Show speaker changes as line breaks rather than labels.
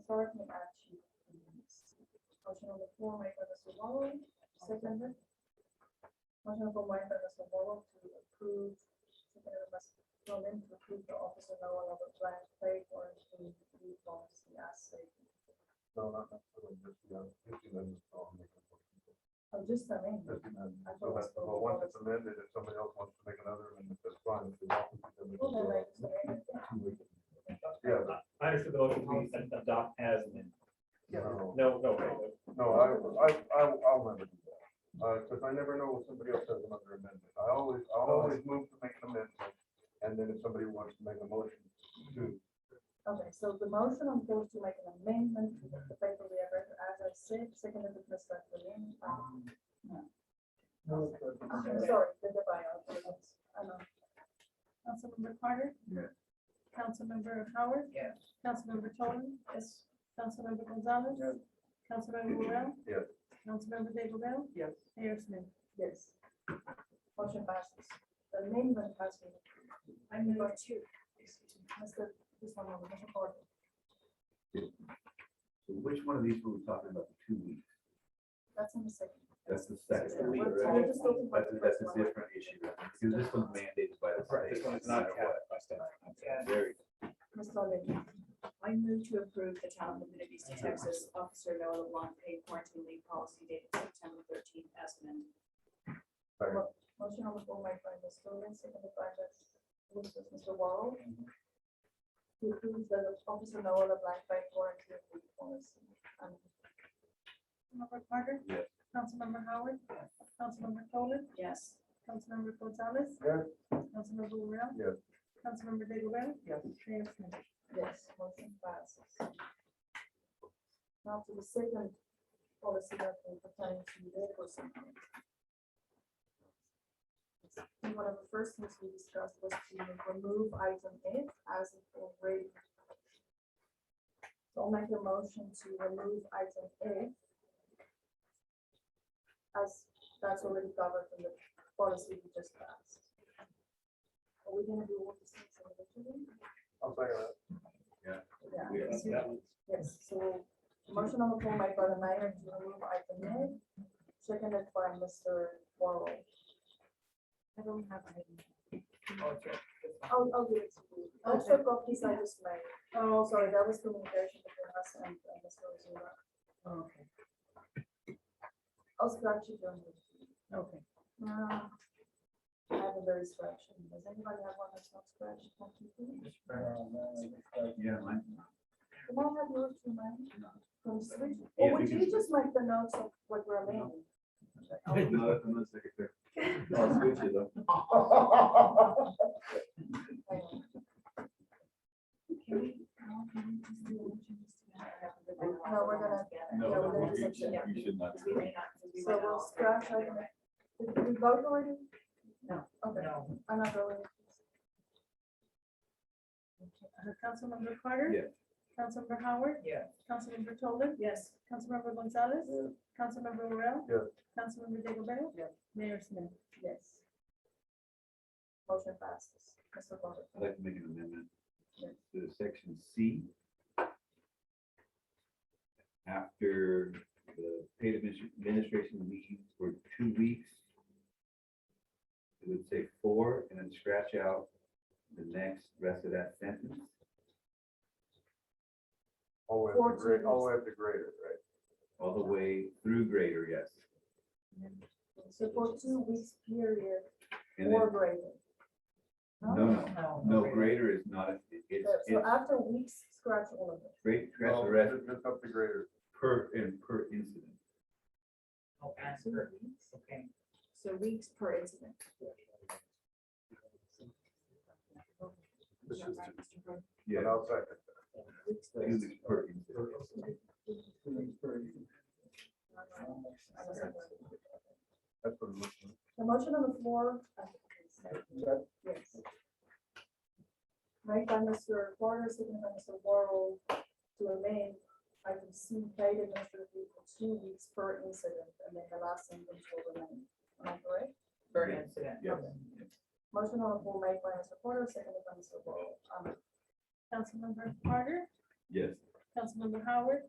authority and action. Motion on the floor made by Mr. Wallow, seconded. Motion on the floor made by Mr. Wallow to approve, seconded by Mr. Flynn to approve the Office of Noah Robert Black Clay for the new policy as stated.
No, not necessarily fifty-nine, fifty-nine is probably.
Oh, just the name.
Fifty-nine,
I thought it was
so that's, well, once it's amended, if somebody else wants to make another, amendment, that's fine. If they want to, then we can
Well, then
go.
that's okay.
Yeah,
I- I understood the motion being sent to adopt as amended.
no,
No, no, no,
no, I, I, I, I'll never do that. Uh, because I never know if somebody else has another amendment. I always, I always move to make an amendment. And then if somebody wants to make a motion to
Okay, so the motion on floor is to make an amendment to the paper we have read, as I said, seconded by Mr. Flynn. Um, Sorry, the bio. I know.
Councilmember Carter?
Yes.
Councilmember Howard?
Yes.
Councilmember Tolan? Yes. Councilmember Gonzalez?
Yes.
Councilmember Morel?
Yes.
Councilmember David Bell?
Yes.
Mayor Smith?
Yes. Motion passes. The amendment has been. I number two. Mr. This one, over, Mr. Gordon.
So Which one of these were we talking about, the two weeks?
That's in the second.
That's the
Yeah,
second week,
we're-
right?
we're just looking for
That's,
the
that's
first
a
one.
different issue, right? because this one's mandated by the
Right,
state.
this one is
no
not
matter what.
capped by state.
Very,
Mr. Lynn,
I move to approve the town of Bemidji Beach, Texas, Officer Noah LeBlanc paid quarantine leave policy dated September thirteenth as amended.
motion on the floor made by Mr. Lynn, seconded by Ms. which was Mr. Wall. To approve the officer Noah LeBlanc by warranty of the policy. And
Councilmember Carter?
Yes.
Councilmember Howard? Councilmember Tolan?
Yes.
Councilmember Gonzalez?
Yes.
Councilmember Morel?
Yes.
Councilmember David Bell? Yes. Mayor Smith?
Yes, motion passes. Now to the second policy that will pertain to labor support. And one of the first things we discussed was to remove item eight as it already. So I'll make a motion to remove item eight. As that's already covered in the policy we just passed. Are we gonna do all the things individually?
I'll second that.
Yeah.
we have-
That was-
Yes, so motion on the floor made by the mayor to remove item A, seconded by Mr. Warrow. I don't have any.
Oh,
Oh, I'll, I'll give it to you. I'll
Okay.
check off these I just made. Oh, sorry, that was communication between us and and Mr. Ozuna.
Oh, Okay,
I'll scratch it down.
okay.
Uh, I have a very scratch. Does anybody have one that's not scratched? Can't you see?
yeah, mine.
Can I have yours to mine? From switch?
Yeah,
Or
we
would
can-
you just make the notes of what we're amending?
No, I'm not secretary. I'll switch it up.
Hang on.
Can we, no, can we just do one change to that? I haven't been there.
No, we're gonna-
Together.
No,
Yeah, we're
no,
gonna
you
switch it
should-
up.
you should not.
Because we may not- because we
So
might
we'll
not-
scratch item Did we vote already?
No.
Okay, I'm not voting.
Uh, Councilmember Carter?
Yes.
Councilmember Howard?
Yes.
Councilmember Tolan?
Yes.
Councilmember Gonzalez?
Yes.
Councilmember Morel?
Yes.
Councilmember Digglebell?
Yes.
Mayor Smith?
Yes. Motion passes. Mr. Carter.
I'd like to make an amendment
Yes.
to section C. After the paid adminis- administration leave for two weeks. It would say four and then scratch out the next rest of that sentence.
All the way up to grade,
Fourteen.
all the way up to grader, right?
All the way through grader, yes.
So for two weeks period
And then,
or greater.
no, no, no, grader is not, it- it's,
So so
it's
after weeks, scratch all of it.
great, scratch the
No,
rest
just- Just up to grader.
per, and per incident.
Two weeks.
So weeks per incident.
This
Yeah,
is-
right, Mr. Burke.
Yeah,
And I'll second.
two weeks per incident.
I was like,
That's what it looks like.
The motion on the floor. uh, Yes. Made by Mr. Porter, seconded by Mr. Worrell, to amend item C, paid administratively for two weeks per incident, and then the last sentence will remain. Am I correct?
Per incident. Yes.
Motion on the floor made by Mr. Porter, seconded by Mr. Worrell. Um,
Councilmember Carter?
Yes.
Councilmember Howard,